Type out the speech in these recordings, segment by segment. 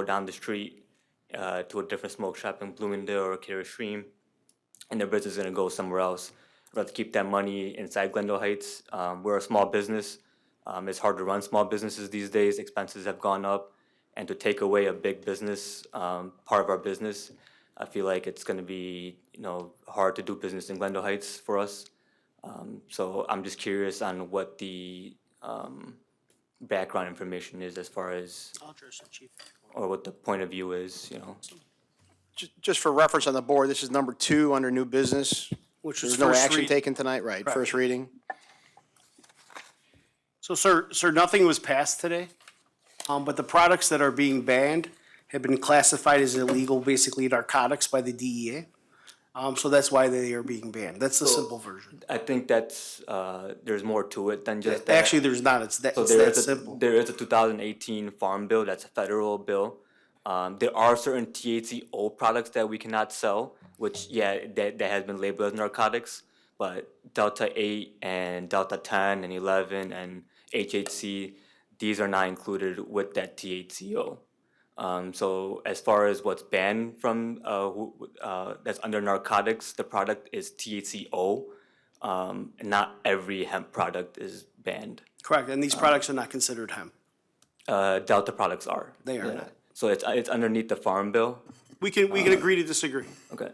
go down the street uh, to a different smoke shop in Bloomingdale or Carrier Stream, and their business is going to go somewhere else. I'd rather keep that money inside Glendale Heights. Um, we're a small business. Um, it's hard to run small businesses these days. Expenses have gone up, and to take away a big business um, part of our business, I feel like it's going to be you know hard to do business in Glendale Heights for us. Um, so I'm just curious on what the um, background information is as far as I'll address the chief. or what the point of view is. You know, Ju- Just for reference on the board, this is number two under new business. Which is There's no first action read. taken tonight, right? First reading. So, sir, sir, nothing was passed today, um, but the products that are being banned have been classified as illegal, basically narcotics by the DEA. Um, so that's why they are being banned. That's the simple version. I think that's uh, there's more to it than just that. Actually, there's not. It's that, So Oh. it's there that is a, simple. there is a 2018 Farm Bill, that's a federal bill. Um, there are certain THCO products that we cannot sell, which, yeah, that, that has been labeled as narcotics, but Delta 8 and Delta 10 and 11 and HHC, these are not included with that THCO. Um, so as far as what's banned from, uh, who, uh, that's under narcotics, the product is THCO. Um, not every hemp product is banned Correct. And these products are not considered hemp. uh, Delta products are. They are Yeah. not. So it's, it's underneath the farm bill. We can, Uh-huh. we can agree to disagree. Okay.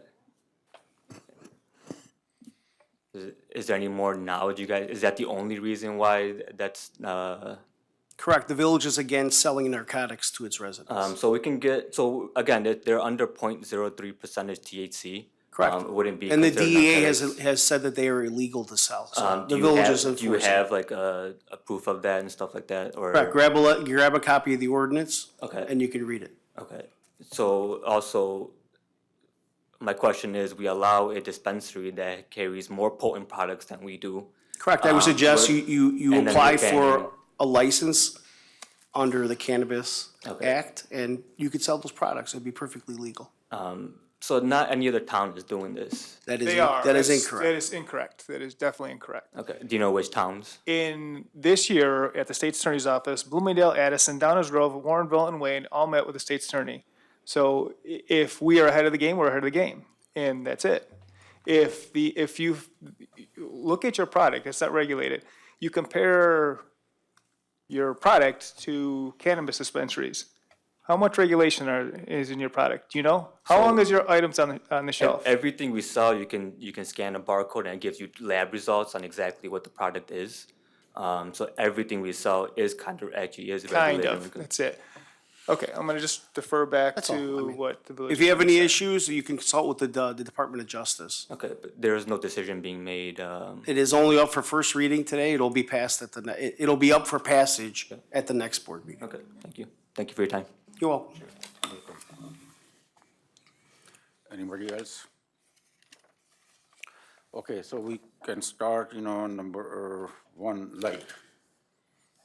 Is, is there any more knowledge you guys, is that the only reason why th- that's, uh, Correct. The village is again selling narcotics to its residents. um, so we can get, so again, they're, they're under 0.03 percentage THC. Correct. Um, it wouldn't be. And the considered DEA has, narcotics. has said that they are illegal to sell. So Um, do the you village have- is Do you enforcing. have like a, a proof of that and stuff like that or? Correct. Grab a, le- grab a copy of the ordinance. Okay. And you can read it. Okay, so also, my question is, we allow a dispensary that carries more potent products than we do. Correct, I would suggest you, you, you and then apply you ban for them. a license under the Cannabis Okay. Act, and you could sell those products, it'd be perfectly legal. So not any other town is doing this. That is, They are. that is That's- That incorrect. is incorrect. That is definitely incorrect. Okay, do you know which towns? In this year, at the state's attorney's office, Bloomingdale, Addison, Downers Grove, Warrenville, and Wayne all met with the state's attorney. So i- if we are ahead of the game, we're ahead of the game, and that's it. If the if you look at your product, it's not regulated. You compare your product to cannabis dispensaries. How much regulation are, is in your product? Do you know? How long is your items on the, on the shelf? Everything we sell, you can, you can scan a barcode and it gives you lab results on exactly what the product is. Um, so everything we sell is kind of, actually is Kind regulated. of, that's it. Okay, I'm gonna just defer back all, I to mean, what the village. If you have any issues, you can consult with the, D- the Department of Justice. Okay, but there is no decision being made, um, It is only up for first reading today, it'll be passed at the, ne- it- it'll be up for passage at the next board meeting. okay, thank you. Thank you for your time. You're welcome. Anybody else? Okay, so we can start, you know, number one, light.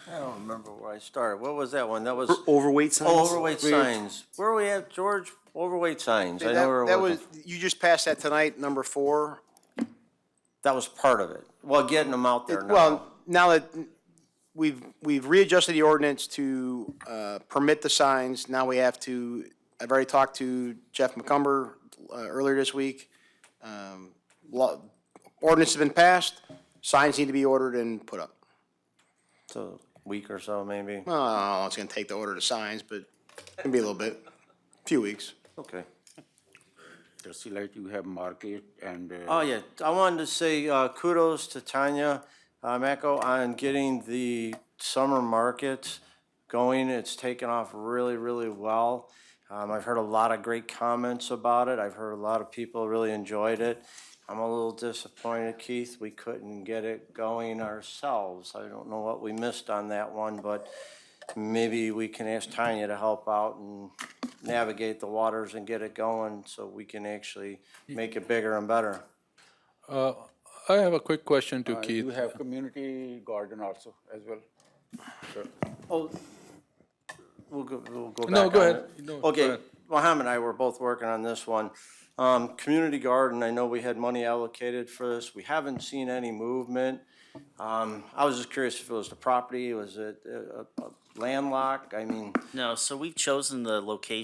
I don't remember where I started. What was that one? That was Overweight signs? Oh, overweight signs. Where are we at, George? Overweight signs. I know where That we're that working. was, you just passed that tonight, number four. That was part of it. Well, getting them out there now. Well, now that we've, we've readjusted the ordinance to uh, permit the signs, now we have to, I've already talked to Jeff McCumber uh, earlier this week. Um, law- Ordinance has been passed, signs need to be ordered and put up. It's a week or so, maybe. Well, I don't know, it's gonna take the order to signs, but it can be a little bit, few weeks. Okay. Jersey Light, you have market and, uh, Oh, yeah. I wanted to say uh, kudos to Tanya uh, Mako on getting the summer markets going. It's taken off really, really well. Um, I've heard a lot of great comments about it. I've heard a lot of people really enjoyed it. I'm a little disappointed, Keith, we couldn't get it going ourselves. I don't know what we missed on that one, but maybe we can ask Tanya to help out and navigate the waters and get it going so we can actually make it bigger and better. Uh, I have a quick question to Uh, you Keith. have community garden also as well. Oh, we'll go, we'll go back No, go on ahead. it. No, go Okay, ahead. Mohammed and I were both working on this one. Um, community garden, I know we had money allocated for this. We haven't seen any movement. Um, I was just curious if it was the property, was it a, a- a landlocked, I mean. No, so we've chosen the location